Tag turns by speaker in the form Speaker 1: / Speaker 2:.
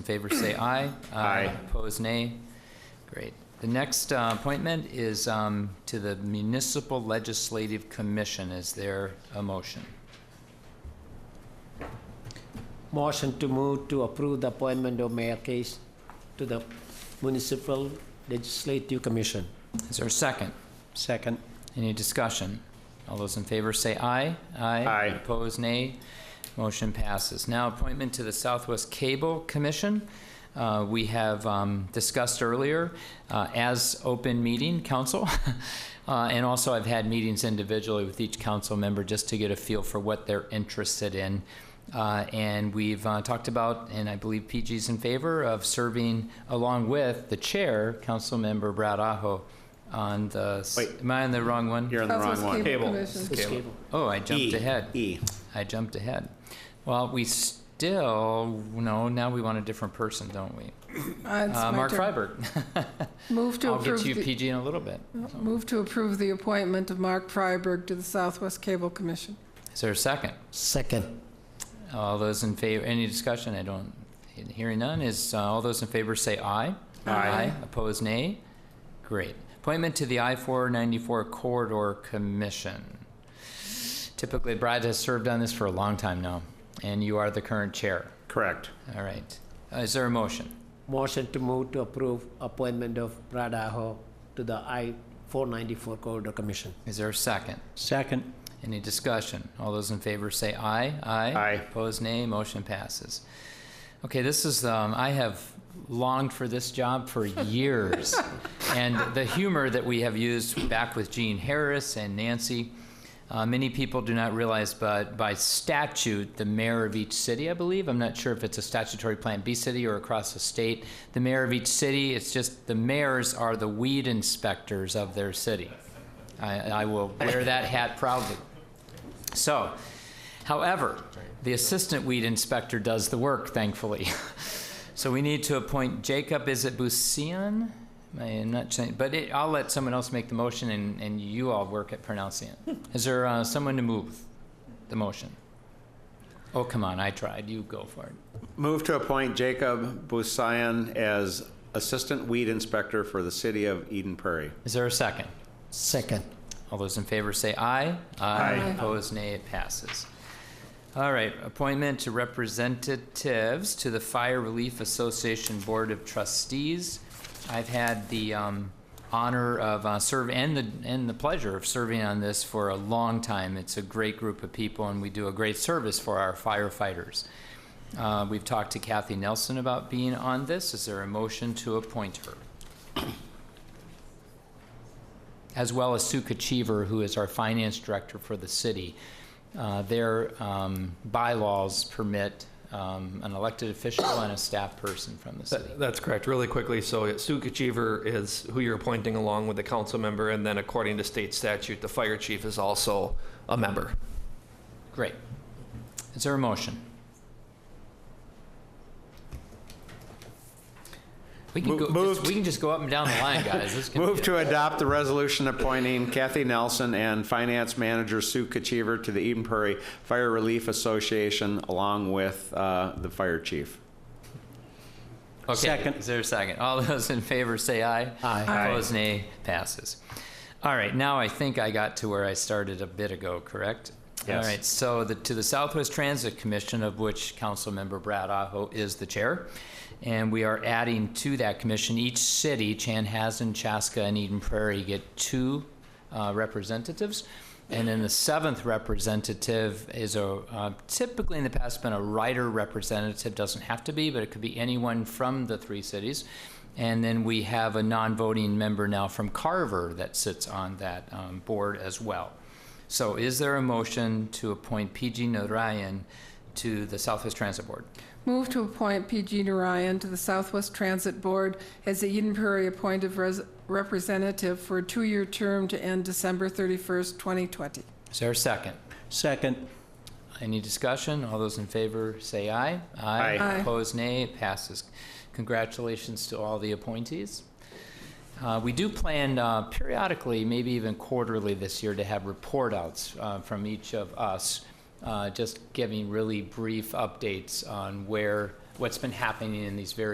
Speaker 1: In favor, say aye. Uh,
Speaker 2: Aye.
Speaker 1: Opposed, nay. Great. The next uh, appointment is um, to the Municipal Legislative Commission. Is there a motion?
Speaker 3: Motion to move to approve the appointment of Mayor Case to the Municipal Legislative Commission.
Speaker 1: Is there a second?
Speaker 3: Second.
Speaker 1: Any discussion? All those in favor say aye.
Speaker 2: Aye.
Speaker 1: Opposed, nay. Motion passes. Now, appointment to the Southwest Cable Commission. Uh, We have um, discussed earlier uh, as open meeting council. Uh, And also, I've had meetings individually with each council member just to get a feel for what they're interested in. Uh, And we've uh, talked about, and I believe PG's in favor of serving along with the chair, Councilmember Brad Aho, on the, s-
Speaker 2: Wait.
Speaker 1: am I on the wrong one?
Speaker 2: You're on the wrong one.
Speaker 4: Cable
Speaker 1: Oh, I jumped
Speaker 2: E,
Speaker 1: ahead.
Speaker 2: E.
Speaker 1: I jumped ahead. Well, we still, no, now we want a different person, don't we?
Speaker 4: Uh, it's
Speaker 1: Uh,
Speaker 4: my
Speaker 1: Mark
Speaker 4: turn.
Speaker 1: Freiberg.
Speaker 4: Move to
Speaker 1: I'll
Speaker 4: approve,
Speaker 1: get you
Speaker 4: the-
Speaker 1: PG in a little bit.
Speaker 4: move to approve the appointment of Mark Freiberg to the Southwest Cable Commission.
Speaker 1: Is there a second?
Speaker 3: Second.
Speaker 1: All those in favor, any discussion? I don't, hearing none, is, uh, all those in favor say aye.
Speaker 2: Aye.
Speaker 1: Opposed, nay? Great. Appointment to the I-494 Corridor Commission. Typically, Brad has served on this for a long time now, and you are the current chair.
Speaker 2: Correct.
Speaker 1: All right. Uh, Is there a motion?
Speaker 3: Motion to move to approve appointment of Brad Aho to the I-494 Corridor Commission.
Speaker 1: Is there a second?
Speaker 3: Second.
Speaker 1: Any discussion? All those in favor say aye. Aye.
Speaker 2: Aye.
Speaker 1: Opposed, nay. Motion passes. Okay, this is, um, I have longed for this job for years. and the humor that we have used back with Gene Harris and Nancy, uh, many people do not realize, but by statute, the mayor of each city, I believe, I'm not sure if it's a statutory Plan B city or across the state, the mayor of each city, it's just the mayors are the weed inspectors of their city. I, I will wear that hat proudly. So, however, the assistant weed inspector does the work, thankfully. so we need to appoint Jacob, is it Busian? I'm not saying, but it, I'll let someone else make the motion and, and you all work at pronouncing it. Is there uh, someone to move the motion? Oh, come on, I tried. You go for it.
Speaker 2: Move to appoint Jacob Busayan as Assistant Weed Inspector for the City of Eden Prairie.
Speaker 1: Is there a second?
Speaker 3: Second.
Speaker 1: All those in favor say aye.
Speaker 2: Aye.
Speaker 1: Opposed, nay, it passes. All right, appointment to representatives to the Fire Relief Association Board of Trustees. I've had the um, honor of uh, serve and the and the pleasure of serving on this for a long time. It's a great group of people, and we do a great service for our firefighters. Uh, We've talked to Kathy Nelson about being on this. Is there a motion to appoint her? as well as Sue Kachiver, who is our finance director for the city. Uh, Their um, bylaws permit um, an elected official and a staff person from the city.
Speaker 5: That- That's correct. Really quickly, so Sue Kachiver is who you're appointing along with the council member, and then according to state statute, the fire chief is also a member.
Speaker 1: Great. Is there a motion? We can
Speaker 2: Mo-
Speaker 1: go,
Speaker 2: move
Speaker 1: just- we can just go up and down the line, guys. This can be
Speaker 2: Move
Speaker 1: a-
Speaker 2: to adopt the resolution appointing Kathy Nelson and Finance Manager Sue Kachiver to the Eden Prairie Fire Relief Association along with uh, the Fire Chief.
Speaker 1: Okay,
Speaker 3: Second.
Speaker 1: Is there a second? All those in favor say aye.
Speaker 3: Aye.
Speaker 2: Aye.
Speaker 1: Opposed, nay. Passes. All right, now I think I got to where I started a bit ago, correct?
Speaker 2: Yes.
Speaker 1: All right, so the, to the Southwest Transit Commission, of which Councilmember Brad Aho is the chair, and we are adding to that commission, each city, Chanhassen, Chaska, and Eden Prairie, get two uh, representatives. And then the seventh representative is a, uh, typically in the past been a rider representative, doesn't have to be, but it could be anyone from the three cities. And then we have a non-voting member now from Carver that sits on that um, board as well. So is there a motion to appoint PG Narayan to the Southwest Transit Board?
Speaker 4: Move to appoint PG Narayan to the Southwest Transit Board as the Eden Prairie appointed res- representative for a two-year term to end December 31st, 2020.
Speaker 1: Is there a second?
Speaker 3: Second.
Speaker 1: Any discussion? All those in favor say aye.
Speaker 2: Aye.
Speaker 4: Aye.
Speaker 1: Opposed, nay. It passes. Congratulations to all the appointees. Uh, We do plan uh, periodically, maybe even quarterly this year, to have report outs uh, from each of us, uh, just giving really brief updates on where what's been happening in these various